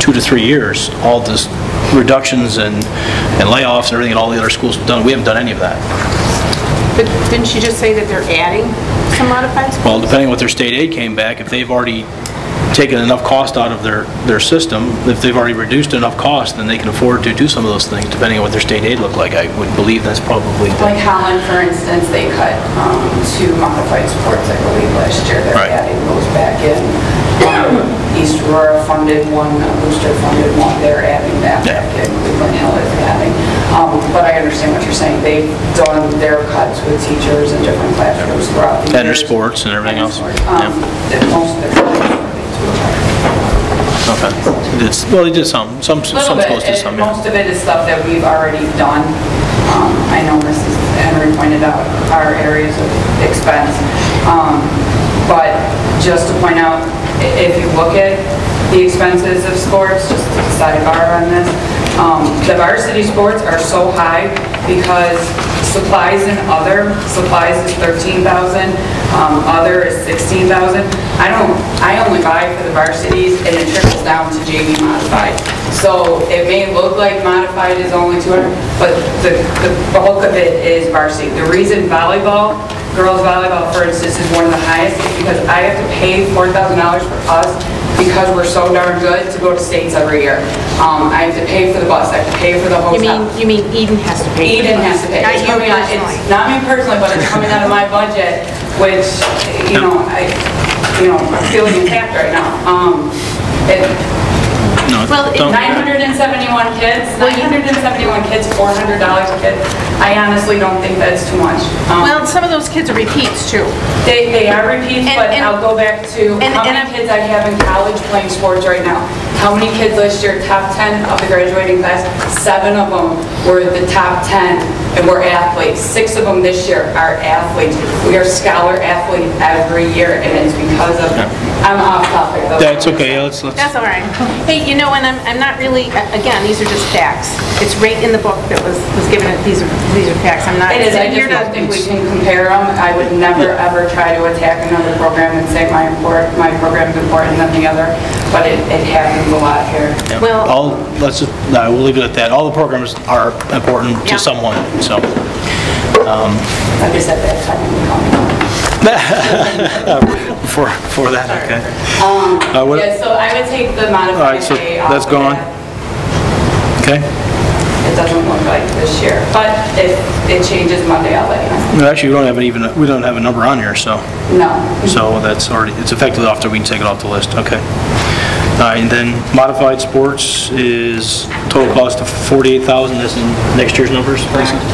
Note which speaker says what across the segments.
Speaker 1: two to three years, all this reductions and and layoffs and everything at all the other schools have done, we haven't done any of that.
Speaker 2: But didn't she just say that they're adding some modified schools?
Speaker 1: Well, depending on what their state aid came back, if they've already taken enough cost out of their, their system, if they've already reduced enough cost, then they can afford to do some of those things, depending on what their state aid looked like. I would believe that's probably the...
Speaker 3: Like Holland, for instance, they cut um, two modified sports, I believe, last year. They're
Speaker 1: Right.
Speaker 3: adding those back in. Um, East Aurora funded one, uh, Booster funded one, they're adding that
Speaker 1: Yeah.
Speaker 3: back in. Cleveland Hill is adding. Um, But I understand what you're saying. They've done their cuts with teachers in different classrooms throughout the years.
Speaker 1: And their sports and everything else.
Speaker 3: And sports. Um, that Most of their
Speaker 1: Okay. It's- Well, they did some, some,
Speaker 3: Little
Speaker 1: some
Speaker 3: bit.
Speaker 2: eh,
Speaker 1: schools did
Speaker 3: It-
Speaker 1: some, yeah.
Speaker 3: Most of it is stuff that we've already done. Um, I know Mrs. Henry pointed out our areas of expense. Um, But just to point out, i- if you look at the expenses of sports, just to sidebar on this, um, the varsity sports are so high because supplies and other, supplies is 13,000, um, other is 16,000. I don't, I only buy for the varsities and it trickles down to JV modified. So it may look like modified is only 200, but the the bulk of it is varsity. The reason volleyball, girls volleyball, for instance, is one of the highest is because I have to pay $4,000 for us because we're so darn good to go to states every year. Um, I have to pay for the bus, I have to pay for the hotel.
Speaker 2: You mean, you mean Eden has to pay? for Oh,
Speaker 3: Eden
Speaker 2: those.
Speaker 3: has to pay.
Speaker 2: Not
Speaker 3: It's
Speaker 2: you
Speaker 3: coming out- it's
Speaker 2: personally.
Speaker 3: Not me personally, but it's coming out of my budget, which, you know, I, you know, I'm feeling attacked right now. Um, it-
Speaker 1: No,
Speaker 2: Well, it-
Speaker 1: don't-
Speaker 3: 971 kids, 971 kids, $400 a kid. I honestly don't think that's too much. Um,
Speaker 2: Well, some of those kids are repeats too.
Speaker 3: They, they are repeats,
Speaker 2: And-
Speaker 3: but
Speaker 2: and-
Speaker 3: I'll go back to
Speaker 2: and-
Speaker 3: how
Speaker 2: and
Speaker 3: many
Speaker 2: I'm-
Speaker 3: kids I have in college playing sports right now. How many kids last year, top 10 of the graduating class, seven of them were the top 10 and were athletes. Six of them this year are athletes. We are scholar athletes every year, and it's because of, I'm off topic though.
Speaker 1: That's okay, yeah, let's, let's,
Speaker 2: That's all right. Hey, you know, and I'm, I'm not really, again, these are just facts. It's right in the book that was, was given, these are, these are facts. I'm not.
Speaker 3: It is, I
Speaker 2: You're
Speaker 3: just
Speaker 2: not-
Speaker 3: don't think we can compare them. I would never, ever try to attack another program and say my import, my program's important than the other, but it, it happens a lot here.
Speaker 2: Well-
Speaker 1: all, let's, just- no, we'll leave it at that. All the programs are important
Speaker 2: Yeah.
Speaker 1: to someone, so.
Speaker 3: I just said that time and coming up.
Speaker 1: For, for that, okay. Uh, what-
Speaker 3: Yeah, so I would take the
Speaker 1: All right,
Speaker 3: modified
Speaker 1: so
Speaker 3: pay off
Speaker 1: that's
Speaker 3: of
Speaker 1: gone.
Speaker 3: that.
Speaker 1: Okay.
Speaker 3: It doesn't look like this year, but if it changes Monday, I'll let you know.
Speaker 1: No, actually, we don't have an even, we don't have a number on here, so,
Speaker 3: No.
Speaker 1: so that's already, it's effectively off, the- we can take it off the list, okay. All right, and then modified sports is total cost of 48,000, that's in next year's numbers, basically?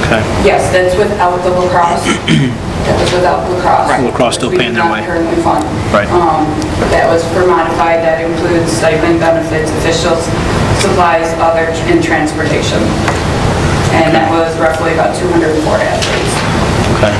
Speaker 1: Okay,
Speaker 3: Yes, that's without the lacrosse. That was without lacrosse.
Speaker 1: Right. Lacrosse still
Speaker 3: which we
Speaker 1: paying
Speaker 3: do
Speaker 1: their
Speaker 3: not
Speaker 1: way.
Speaker 3: currently fund.
Speaker 1: Right.
Speaker 3: Um, That was for modified, that includes stipend benefits, officials, supplies, other, and transportation. And that was roughly about 204 athletes.
Speaker 1: okay.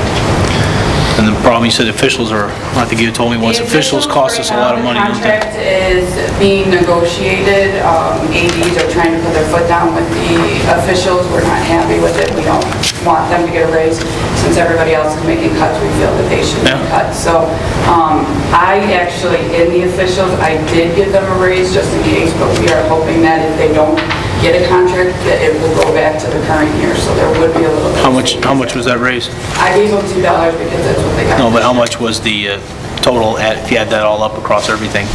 Speaker 1: And the problem, you said officials are, I think you told me once,
Speaker 3: The
Speaker 1: officials cost us a lot of money.
Speaker 3: right now,
Speaker 1: don't
Speaker 3: The
Speaker 1: they?
Speaker 3: contract is being negotiated. Um, ADs are trying to put their foot down with the officials. We're not happy with it. We don't want them to get a raise. Since everybody else is making cuts, we feel that they should be
Speaker 1: Yeah.
Speaker 3: cut. So um, I actually, in the officials, I did give them a raise just in case, but we are hoping that if they don't get a contract, that it will go back to the current year. So there would be a little bit.
Speaker 1: How
Speaker 3: of
Speaker 1: much, how
Speaker 3: savings
Speaker 1: much was that raised?
Speaker 3: there. I gave them $2 because that's what they got.
Speaker 1: No, but how much was the uh, total, at- if you add that all up across everything,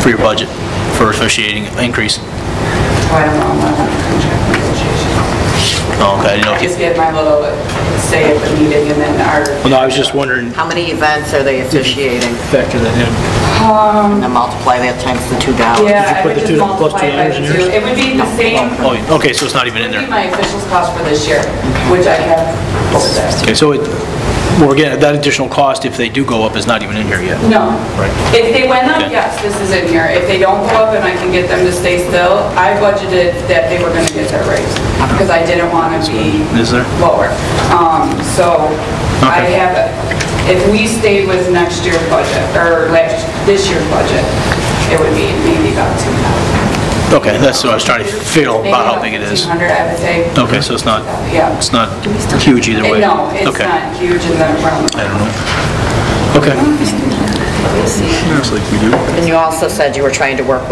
Speaker 1: for your budget, for associating increase?
Speaker 3: So I don't know. I'm not on the contract negotiations.
Speaker 1: Oh, okay, I didn't know if you...
Speaker 3: just get my little say at the meeting and then our,
Speaker 1: Well, no, I was just wondering,
Speaker 4: How many events are they officiating?
Speaker 1: factor that in.
Speaker 4: And then multiply that times the two dollars.
Speaker 3: yeah, I
Speaker 1: put
Speaker 3: would
Speaker 1: the
Speaker 3: just
Speaker 1: two- plus
Speaker 3: multiply
Speaker 1: two
Speaker 3: it by
Speaker 1: dollars in
Speaker 3: the
Speaker 1: yours?
Speaker 3: two. It would be the same,
Speaker 1: Oh, yeah, okay, so it's not even in
Speaker 3: it would be
Speaker 1: there.
Speaker 3: my officials cost for this year, which I have over there.
Speaker 1: Okay, so it, well, again, that additional cost, if they do go up, is not even in here yet.
Speaker 3: No.
Speaker 1: Right.
Speaker 3: If they went up,
Speaker 1: Okay.
Speaker 3: yes, this is in here. If they don't go up and I can get them to stay still, I budgeted that they were gonna get their raise because I didn't want to be
Speaker 1: Is there?
Speaker 3: lower. Um, So I
Speaker 1: Okay.
Speaker 3: have, if we stayed with next year's budget, or last, this year's budget, it would be maybe about 2,000.
Speaker 1: Okay, that's what I was trying to feel
Speaker 3: Maybe
Speaker 1: about how big it is.
Speaker 3: 1,500, I would say.
Speaker 1: Okay, so it's not,
Speaker 3: Yeah.
Speaker 1: it's not huge either way?
Speaker 3: Eh, No, it's
Speaker 1: Okay.
Speaker 3: not huge in the realm.
Speaker 1: I don't know. Okay. Looks like we do.
Speaker 4: And you also said you were trying to work